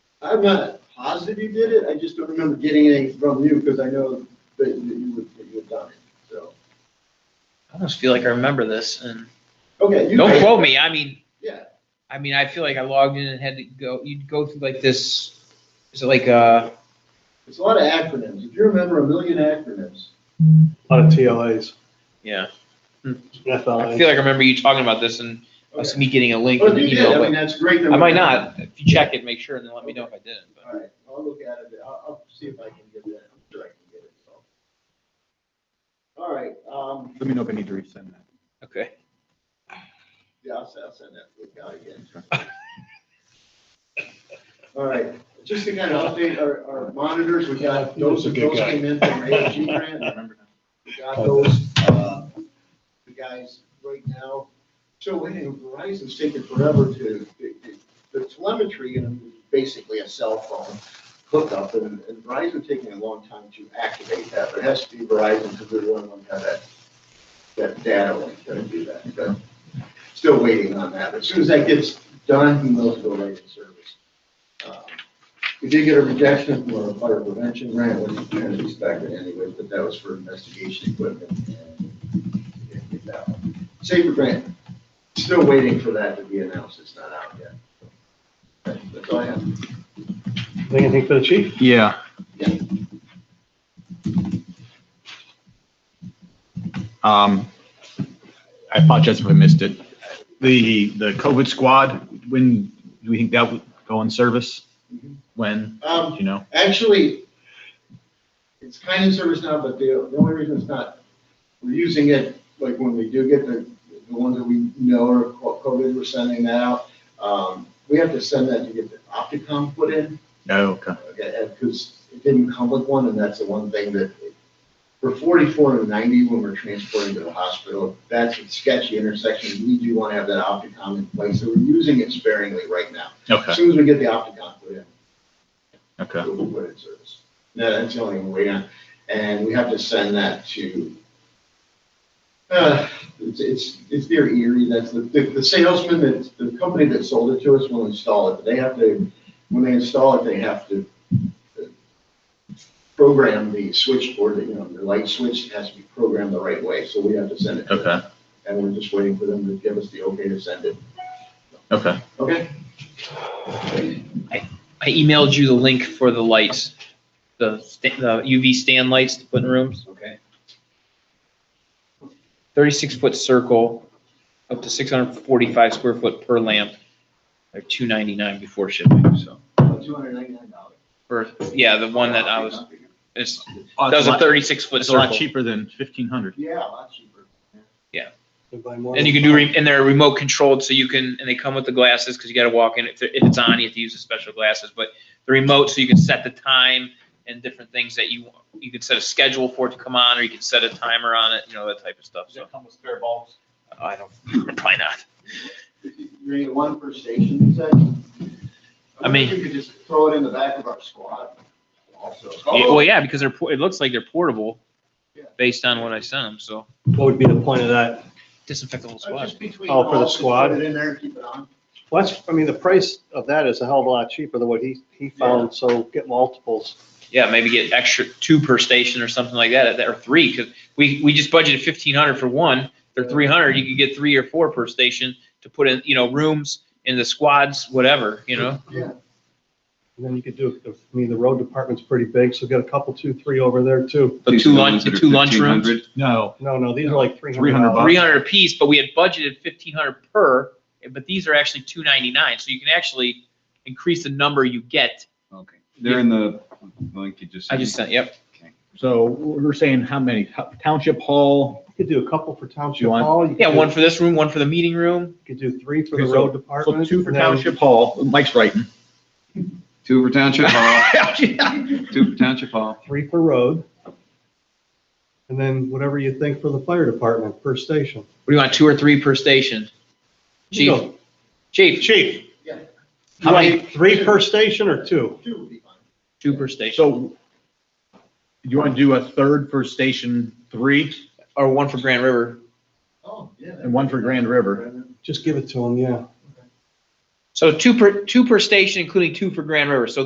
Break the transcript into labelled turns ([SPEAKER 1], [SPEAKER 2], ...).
[SPEAKER 1] I'm not positive you did it, I just don't remember getting anything from you, because I know that you- that you would, that you had done it, so.
[SPEAKER 2] I almost feel like I remember this and
[SPEAKER 1] Okay. you-
[SPEAKER 2] don't quote me. I mean,
[SPEAKER 1] Yeah,
[SPEAKER 2] I mean, I feel like I logged in and had to go, you'd go through like this, is it like, uh,
[SPEAKER 1] it's a lot of acronyms, if you remember a million acronyms.
[SPEAKER 3] A lot of TLAs,
[SPEAKER 2] yeah. I feel
[SPEAKER 3] FLAs.
[SPEAKER 2] like I remember you talking about this and us
[SPEAKER 1] Okay.
[SPEAKER 2] me getting a link
[SPEAKER 1] Oh, Well,
[SPEAKER 2] and
[SPEAKER 1] if
[SPEAKER 2] an
[SPEAKER 1] you did,
[SPEAKER 2] email,
[SPEAKER 1] I mean,
[SPEAKER 2] but
[SPEAKER 1] that's great. that
[SPEAKER 2] I
[SPEAKER 1] we-
[SPEAKER 2] might not. If you check it, make sure and then let me know if I didn't. but-
[SPEAKER 1] All right, I'll look at it, I'll, I'll see if I can get that, I'm sure I can get it, so. All right, um,
[SPEAKER 4] Let me know if I need to resend that.
[SPEAKER 2] Okay.
[SPEAKER 1] yeah, I'll, se- I'll send that to the guy again. All right, just to kind of update our, our monitors, we got, those,
[SPEAKER 3] He's a good
[SPEAKER 1] those
[SPEAKER 3] guy.
[SPEAKER 1] came in from AG grant. We got those, uh, the guys right now. So anyway, Verizon's taking forever to, the telemetry and basically a cell phone hookup and and Verizon's taking a long time to activate that. But it has to be Verizon because they're the only one that have that, that data link to do that. But Still waiting on that. But As soon as that gets done, he knows go right in service. Um, we did get a rejection for a fire prevention grant, which is kind of expected anyway, but that was for investigation equipment. and we didn't get that one. Safer grant, still waiting for that to be announced, it's not out yet. That's all I have.
[SPEAKER 3] Anything for the chief?
[SPEAKER 4] Yeah. Um, I apologize if I missed it. The, the COVID squad, when, do we think that would go in service? When,
[SPEAKER 1] Um,
[SPEAKER 4] Do you know?
[SPEAKER 1] Actually, it's kind of service now, but the, the only reason it's not, we're using it, like, when we do get the, the ones that we know are co- COVID, we're sending that out. Um, we have to send that to get the Opticom put in,
[SPEAKER 4] No, Oh, okay.
[SPEAKER 1] because it didn't come with one, and that's the one thing that, for forty-four and ninety, when we're transporting to the hospital, that's a sketchy intersection, we do want to have that Opticom in place, so we're using it sparingly right now. As
[SPEAKER 4] Okay,
[SPEAKER 1] soon as we get the Opticom put in,
[SPEAKER 4] okay.
[SPEAKER 1] Google put in service. No, that's the only one we have. And we have to send that to, uh, it's, it's, it's near Erie, that's the, the the salesman that, the company that sold it to us will install it. They have to, when they install it, they have to uh, program the switchboard, you know, the light switch has to be programmed the right way, so we have to send it. to them.
[SPEAKER 4] Okay,
[SPEAKER 1] And we're just waiting for them to give us the okay to send it.
[SPEAKER 4] okay.
[SPEAKER 1] Okay?
[SPEAKER 2] I emailed you the link for the lights, the, sta- the UV stand lights to put in rooms.
[SPEAKER 1] Okay.
[SPEAKER 2] Thirty-six foot circle, up to six hundred forty-five square foot per lamp. They're two ninety-nine before shipping, so.
[SPEAKER 1] Two hundred ninety-nine dollars.
[SPEAKER 2] Or, yeah, the one that I was, it's, that was a thirty-six foot
[SPEAKER 4] Oh, It's a lot
[SPEAKER 2] circle.
[SPEAKER 4] cheaper than fifteen hundred.
[SPEAKER 1] Yeah, a lot cheaper.
[SPEAKER 2] And you can do, re- and they're remote controlled, so you can, and they come with the glasses, because you gotta walk in, if, they're- if it's on, you have to use the special glasses, but the remote, so you can set the time and different things that you, want. you can set a schedule for it to come on, or you can set a timer on it, you know, that type of stuff, so.
[SPEAKER 4] come with spare bulbs?
[SPEAKER 2] I don't, probably not.
[SPEAKER 1] You're gonna get one per station, you said?
[SPEAKER 2] I mean-
[SPEAKER 1] You could just throw it in the back of our squad also.
[SPEAKER 2] Yeah, Well, yeah, because they're, por- it looks like they're portable,
[SPEAKER 1] Oh! Yeah.
[SPEAKER 2] based on what I sent them, so.
[SPEAKER 3] What would be the point of that?
[SPEAKER 2] Disinfect the whole
[SPEAKER 1] Uh,
[SPEAKER 2] squad.
[SPEAKER 1] Just between
[SPEAKER 3] Oh, for the
[SPEAKER 1] calls, just
[SPEAKER 3] squad?
[SPEAKER 1] Put it in there and keep it on.
[SPEAKER 3] Well, that's, I mean, the price of that is a hell of a lot cheaper than what he, he found, so get multiples.
[SPEAKER 2] Yeah, maybe get extra two per station or something like that, or three, because we, we just budgeted fifteen hundred for one. They're three hundred, you could get three or four per station to put in, you know, rooms in the squads, whatever, you know?
[SPEAKER 1] Yeah.
[SPEAKER 3] And then you could do, I mean, the road department's pretty big, so get a couple, two, three over there too.
[SPEAKER 2] The two lunch, the two lunch rooms.
[SPEAKER 4] No,
[SPEAKER 3] No, no, these are like three hundred.
[SPEAKER 4] 300 bucks.
[SPEAKER 2] Three hundred apiece, but we had budgeted fifteen hundred per, but these are actually two ninety-nine, so you can actually increase the number you get.
[SPEAKER 5] Okay, they're in the link you just.
[SPEAKER 2] I just sent, yep.
[SPEAKER 4] so we're saying how many? How- Township Hall,
[SPEAKER 3] You could do a couple for township
[SPEAKER 4] You want-
[SPEAKER 3] hall. you
[SPEAKER 2] Yeah,
[SPEAKER 3] could-
[SPEAKER 2] one for this room, one for the meeting room.
[SPEAKER 3] You could do three for the
[SPEAKER 4] Okay, so-
[SPEAKER 3] road
[SPEAKER 4] so
[SPEAKER 3] department.
[SPEAKER 4] two for
[SPEAKER 3] and then-
[SPEAKER 4] Township Hall, Mike's writing.
[SPEAKER 5] Two for Township Hall,
[SPEAKER 4] Yeah.
[SPEAKER 5] two for Township Hall.
[SPEAKER 3] three per road. And then whatever you think for the fire department per station.
[SPEAKER 2] What do you want, two or three per station?
[SPEAKER 3] You
[SPEAKER 2] Chief,
[SPEAKER 3] go.
[SPEAKER 2] chief,
[SPEAKER 3] Chief,
[SPEAKER 1] Yeah,
[SPEAKER 2] how many,
[SPEAKER 3] three per station or two?
[SPEAKER 1] two would be fine.
[SPEAKER 2] two per station?
[SPEAKER 4] So you want to do a third for Station Three
[SPEAKER 2] or one for Grand River.
[SPEAKER 1] Oh, yeah.
[SPEAKER 4] and one for Grand River?
[SPEAKER 3] Just give it to them, yeah.
[SPEAKER 2] So two per, two per station, including two for Grand River. So